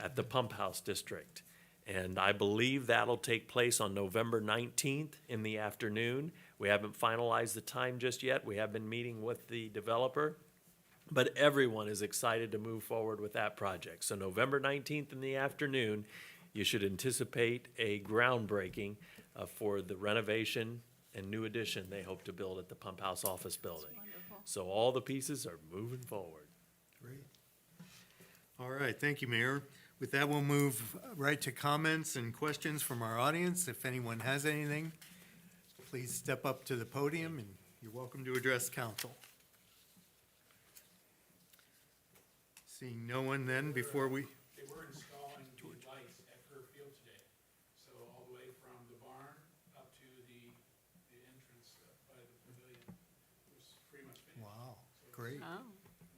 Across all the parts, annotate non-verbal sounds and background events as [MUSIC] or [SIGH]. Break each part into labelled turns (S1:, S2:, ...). S1: at the Pump House District. And I believe that'll take place on November 19th in the afternoon. We haven't finalized the time just yet. We have been meeting with the developer. But everyone is excited to move forward with that project. So November 19th in the afternoon, you should anticipate a groundbreaking uh, for the renovation and new addition they hope to build at the Pump House Office Building. So all the pieces are moving forward.
S2: Great. All right, thank you, Mayor. With that, we'll move right to comments and questions from our audience. If anyone has anything, please step up to the podium and you're welcome to address council. Seeing no one then, before we,
S3: They were installing the lights at Kerr Field today, so all the way from the barn up to the, the entrance uh, by the pavilion was pretty much finished.
S2: wow, great.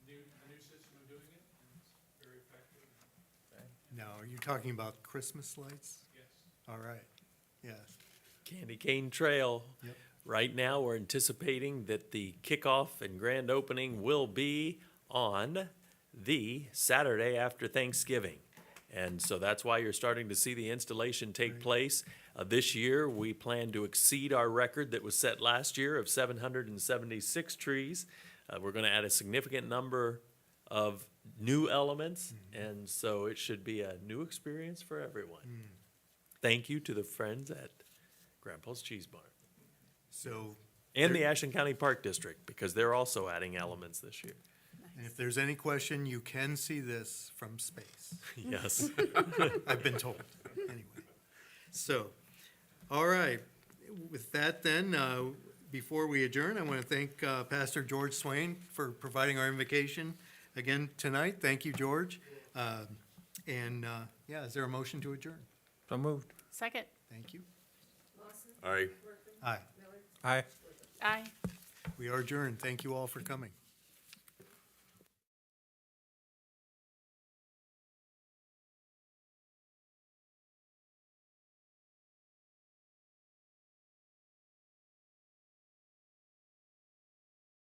S3: New, a new system of doing it, and it's very effective,
S2: Now, are you talking about Christmas lights?
S3: yes.
S2: All right, yes,
S1: Candy Cane Trail.
S2: Yep.
S1: Right now, we're anticipating that the kickoff and grand opening will be on the Saturday after Thanksgiving. And so that's why you're starting to see the installation take place. Uh, this year, we plan to exceed our record that was set last year of 776 trees. Uh, we're going to add a significant number of new elements, and so it should be a new experience for everyone. Thank you to the friends at Grandpa's Cheese Barn
S2: so
S1: and the
S2: There-
S1: Ashen County Park District because they're also adding elements this year.
S2: and if there's any question, you can see this from space.
S1: Yes. [LAUGHS]
S2: [LAUGHS] I've been told, anyway. So, all right, with that then, uh, before we adjourn, I want to thank uh, Pastor George Swain for providing our invocation again tonight. Thank you, George. Uh, And, uh, yeah, is there a motion to adjourn?
S4: So moved.
S5: Second.
S2: Thank you.
S6: Aye.
S2: Aye,
S4: Aye.
S5: Aye.
S2: we are adjourned. Thank you all for coming.